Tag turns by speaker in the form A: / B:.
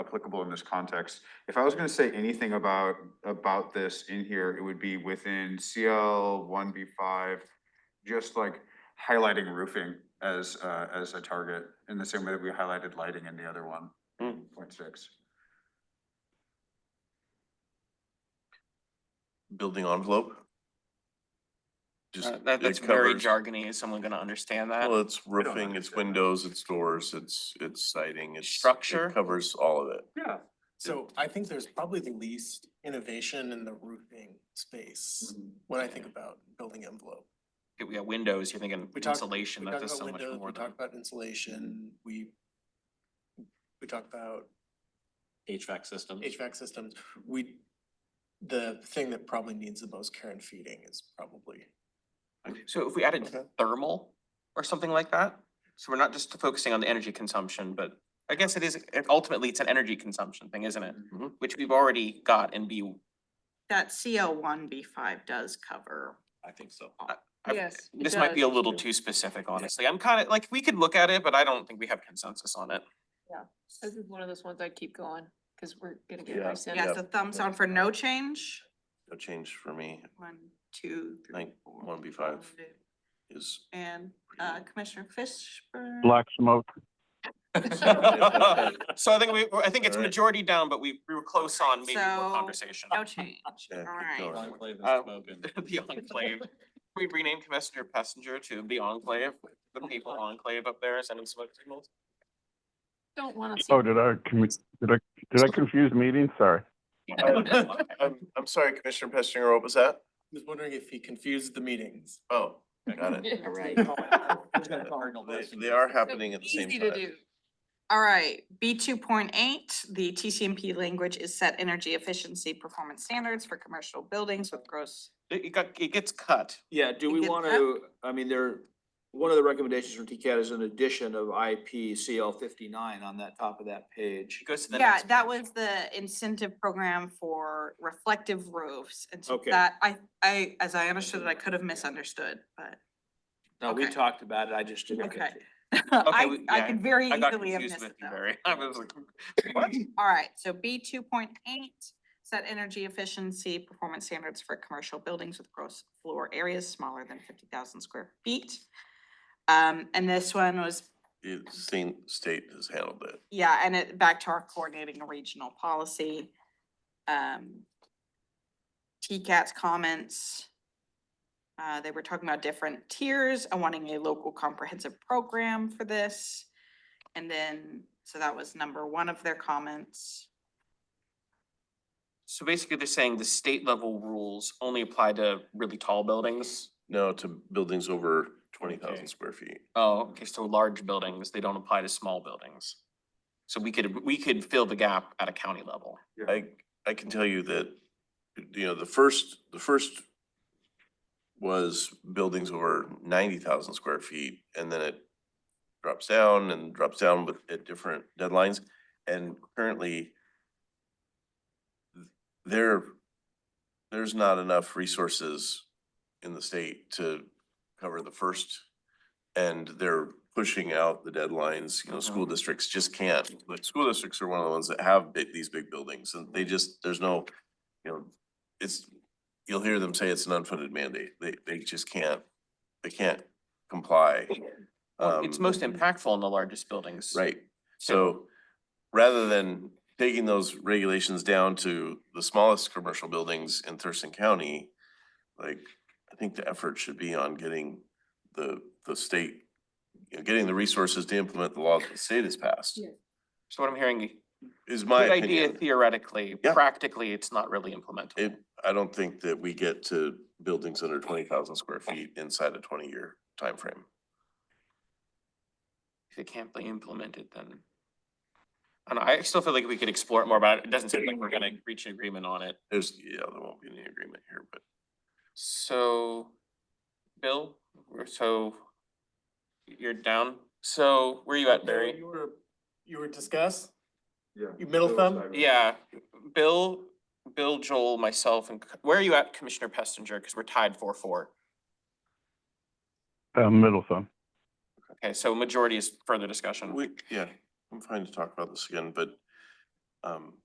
A: applicable in this context. If I was gonna say anything about, about this in here, it would be within CL one B five, just like highlighting roofing as, uh, as a target, in the same way that we highlighted lighting in the other one,
B: Hmm.
A: point six.
C: building envelope. Just,
B: Uh, That, that's
C: it
B: very
C: covers,
B: jargony. Is someone gonna understand that?
C: well, it's roofing, it's
A: understand that.
C: windows, it's doors, it's, it's siding, it's. it
B: Structure?
C: Covers all of it.
A: Yeah.
D: So I think there's probably the least innovation in the roofing
B: Mm.
D: space
A: Mm-hmm.
D: when I think about building envelope.
B: We got windows, you're thinking
D: We talk-
B: insulation, that
D: We talk
B: does
D: about
B: so much
D: windows,
B: more
D: we
B: than. Mm.
D: talk about insulation, we we talk about
E: HVAC system.
D: HVAC systems, we the thing that probably needs the most care and feeding is probably
B: So if we added
D: Okay.
B: thermal or something like that, so we're not just focusing on the energy consumption, but I guess it is, it- ultimately, it's an energy consumption thing, isn't it?
C: Mhm.
B: Which we've already got in B.
F: That CL one B five does cover.
E: I think so.
B: I-
F: Yes, it
B: This might be a
F: does.
B: little too specific, honestly. I'm kind of, like, we could look at it, but I don't think we have consensus on it.
G: This is one of those ones I keep going, cause we're gonna get
C: Yeah.
G: rescinded.
F: Yes, a thumbs down for no change.
C: No change for me
F: One, two, three,
C: Nine-
F: four.
C: 1B5.
F: five, two.
C: is.
F: And uh, Commissioner Fishburne.
H: Black smoke.
B: So I think we, I think
C: Alright.
B: it's majority down, but we, we were close on maybe more
F: So-
B: conversation.
F: No change.
C: Yeah,
F: All
C: keep
F: right.
C: going.
E: Enclave and
B: Uh,
E: smoke and-
B: The enclave. Can We renamed Messenger Passenger to the Enclave,
F: Oh,
B: the people enclave up there sending smoke signals.
G: Don't wanna see.
H: Oh, did I, commu- did I, did I confuse meetings? Sorry.
C: I'm, I'm sorry, Commissioner Pestinger, what was that?
D: I was wondering if he confused the meetings.
C: Oh, got it.
G: Yeah, right.
C: They, they are happening at the same
G: Easy to
C: time.
G: do.
F: All right, B two point eight, the TCMP language is set energy efficiency performance standards for commercial buildings with gross.
B: It it got, it gets cut.
I: Yeah, do
F: You
I: we
F: get
I: want
F: that?
I: to, I mean, there, one of the recommendations from TCAT is an addition of IP CL fifty-nine on that top of that page.
B: It goes to the
F: Yeah,
B: next.
F: that
B: page.
F: was the incentive program for reflective roofs. And so
I: Okay.
F: that, I, I, as I understood it, I could have misunderstood, but
I: No, we
F: Okay.
I: talked about it, I just didn't.
F: Okay.
I: catch it.
F: I,
B: we-
F: I
B: yeah,
F: could very
B: I got
F: easily have
B: confused
F: missed
B: with
F: it
B: you,
F: though.
B: Barry. I was like, what?
F: All right, so B two point eight, set energy efficiency performance standards for commercial buildings with gross floor areas smaller than fifty thousand square feet. Um, and this one was,
C: It, state, state has handled it.
F: yeah, and it, back to our coordinating a regional policy. Um. TCAT's comments. Uh, they were talking about different tiers and wanting a local comprehensive program for this. And then, so that was number one of their comments.
B: So basically, they're saying the state level rules only apply to really tall buildings.
C: No, to buildings over twenty
I: Okay.
C: thousand square feet.
B: Oh, okay, so large buildings, they don't apply to small buildings. So we could, we could fill the gap at a county level.
C: I, I can tell you that, you know, the first, the first was buildings over ninety thousand square feet, and then it drops down and drops down with, at different deadlines, and currently there, there's not enough resources in the state to cover the first, and they're pushing out the deadlines, you know, school
B: Mhm.
C: districts just can't. Like, school districts are one of the ones that have big, these big buildings, and they just, there's no, you know, it's, you'll hear them say it's an unfunded mandate, they, they just can't, they can't comply.
B: Well, It's
C: Um,
B: most impactful in the largest buildings.
C: Right, so rather than taking those regulations down to the smallest commercial buildings in Thurston County, like, I think the effort should be on getting the, the state, you know, getting the resources to implement the laws that the state has passed,
G: Yeah.
B: So what I'm hearing,
C: is my
B: good idea
C: opinion.
B: theoretically,
C: Yeah.
B: practically, it's not really implementable.
C: It, I don't think that we get to buildings under twenty thousand square feet inside a twenty-year timeframe.
B: If it can't be implemented, then. I don't know, I still feel like we could explore it more, but it doesn't seem like we're gonna reach an agreement on it.
C: There's, yeah, there won't be any agreement here, but
B: So, Bill, we're so, you're down. So where you at, Barry?
D: You were, you were discuss?
A: Yeah.
D: You middle thumb?
B: Yeah, Bill, Bill, Joel, myself, and c- where are you at, Commissioner Pestinger? Because we're tied four four.
H: Uh, middle thumb.
B: Okay, so majority is further discussion.
C: we, yeah, I'm fine to talk about this again, but Um,